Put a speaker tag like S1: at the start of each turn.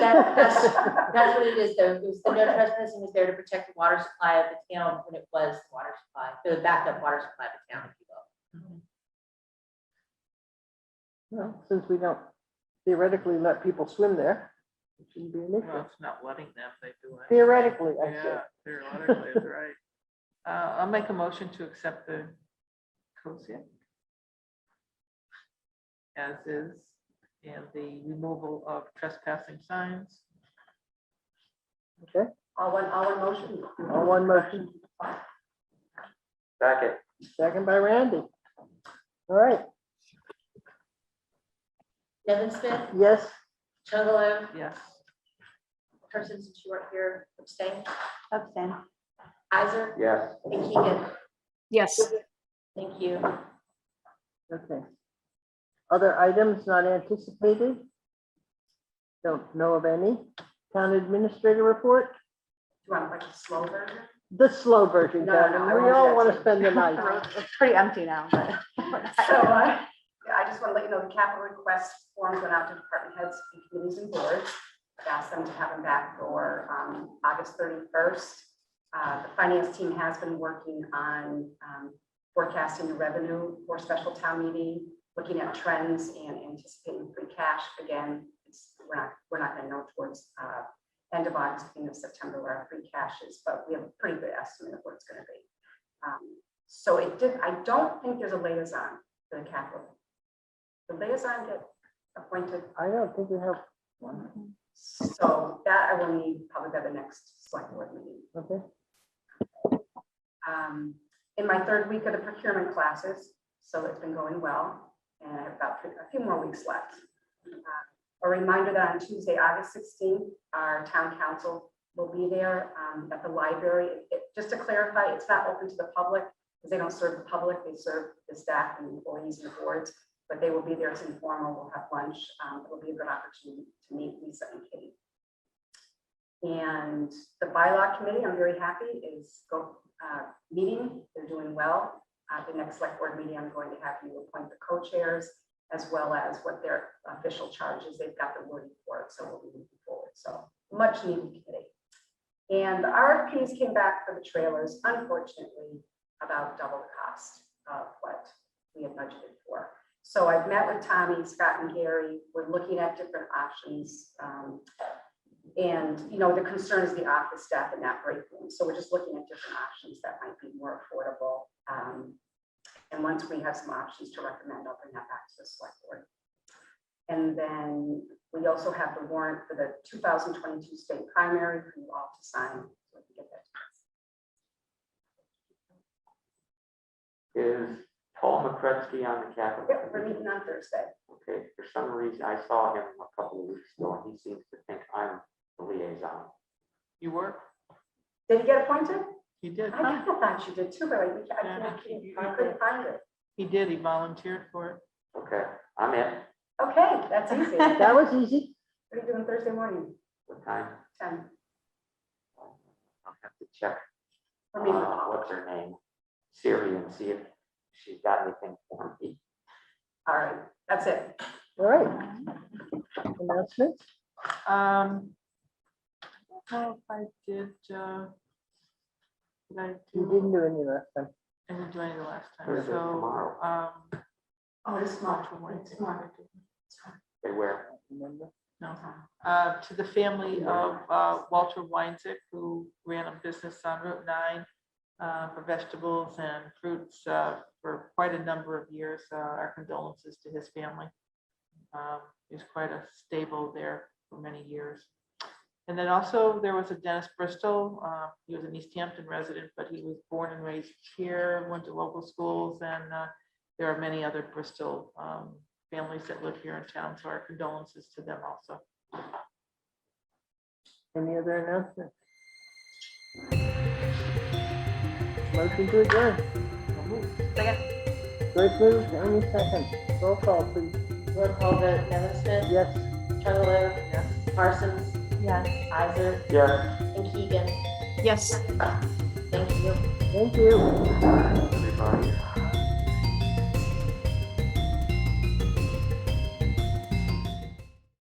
S1: that, that's, that's what it is, though, it was the no trespassing was there to protect the water supply of the town when it was the water supply, the backup water supply of the town, if you will.
S2: Well, since we don't theoretically let people swim there, it shouldn't be an
S3: Well,
S2: issue.
S3: it's not letting them, they do it.
S2: Theoretically, I
S3: Yeah,
S2: said.
S3: theoretically, that's right. Uh, I'll make a motion to accept the COSIA as is, and the removal of trespassing signs.
S4: All one, all one motion.
S2: On one motion,
S5: Second.
S2: second by Randy. All right,
S1: Nevin Smith,
S2: yes,
S1: Chugalo,
S3: Yes,
S1: persons who weren't here, abstain,
S4: Abstain.
S1: Isaac,
S5: Yes.
S1: and Keegan,
S6: Yes,
S1: thank you.
S2: okay. Other items not anticipated? Don't know of any. Town administrator report,
S4: Do you want like a slow version?
S2: the slow version,
S4: No, no, no,
S2: Karen,
S4: I
S2: we
S4: won't do
S2: all
S4: that
S2: want
S4: to
S2: to
S4: you.
S2: spend the night.
S7: It's pretty empty now, but.
S4: So, uh, yeah, I just want to let you know the capital request forms went out to department heads and committees and boards. I Asked them to have them back for um, August thirty-first. Uh, The finance team has been working on um, forecasting the revenue for special town meeting, looking at trends and anticipating free cash. Again, it's, we're not, we're not going to know towards uh, end of August, beginning of September where our free cash is, but we have a pretty good estimate of what it's going to be. Um, So it did, I don't think there's a liaison for the capital. The liaison get appointed,
S2: I don't think we have one,
S4: so that I will need probably by the next select board meeting.
S2: okay?
S4: Um, In my third week of the procurement classes, so it's been going well, and I have about three- a few more weeks left. Uh, A reminder that on Tuesday, August 16th, our town council will be there um, at the library. It- it- Just to clarify, it's not open to the public, because they don't serve the public, they serve the staff and employees and the boards, but they will be there, it's informal, we'll have lunch, Um, it'll be a good opportunity to meet Lisa and Katie. And the bylaw committee, I'm very happy, is go- uh, meeting. They're doing well. At the next select board meeting, I'm going to have you appoint the co-chairs as well as what their official charge is. They've got the wording for it, so we'll be moving forward. So much needed committee. And the RFPs came back for the trailers, unfortunately, about double the cost of what we had budgeted for. So I've met with Tommy, Scott and Gary. We're looking at different options. um, and, you know, the concern is the office staff in that break room. So we're just looking at different options that might be more affordable. Um, And once we have some options to recommend, I'll bring that back to the select board. And then we also have the warrant for the 2022 state primary for you all to sign. so we can get that.
S5: Is Paul McCretsky on the Capitol?
S4: Yep, we're meeting on Thursday.
S5: Okay, for some reason, I saw him a couple of weeks ago, and he seems to think I'm the liaison.
S3: you were,
S4: Did you get appointed?
S3: he did,
S4: I kinda thought you did too, but I I
S3: Yeah,
S4: can't-
S3: you- you
S4: I couldn't find it.
S3: he did, he volunteered for it.
S5: Okay, I'm in.
S4: Okay, that's easy. What
S2: That was easy.
S4: are you doing Thursday morning?
S5: What time?
S4: 10.
S5: I'll have to check,
S4: We're
S5: uh,
S4: meeting with Paul.
S5: what's her name? Siri and see if she's got anything for me.
S4: All right, that's it.
S2: All right. Announcements?
S3: Um, I don't know if I did, uh, did I
S2: You didn't
S3: do,
S2: do any last time.
S3: I didn't do any the last time,
S5: Thursday,
S3: so,
S5: tomorrow,
S3: um,
S4: Oh, it's
S3: March
S4: smart.
S3: one,
S4: It's smart.
S5: they wear
S2: Remember?
S3: No, uh, to the family of uh, Walter Weinzick, who ran a business on Route 9 uh, for vegetables and fruits uh, for quite a number of years. Uh, Our condolences to his family. Um, He was quite a stable there for many years. And then also, there was a Dennis Bristol. uh, He was an East Hampton resident, but he was born and raised here, went to local schools, and uh, there are many other Bristol um, families that live here in town, so our condolences to them also.
S2: Any other announcements? Motion to adjourn. Great move, any second. Roll call, please.
S1: Roll call vote, Nevin Smith,
S2: Yes.
S1: Chugalo,
S3: Yes.
S1: Parsons,
S7: Yes.
S1: Isaac,
S5: Yeah,
S1: and Keegan,
S6: yes.
S1: thank you.
S2: Thank you.
S5: everybody.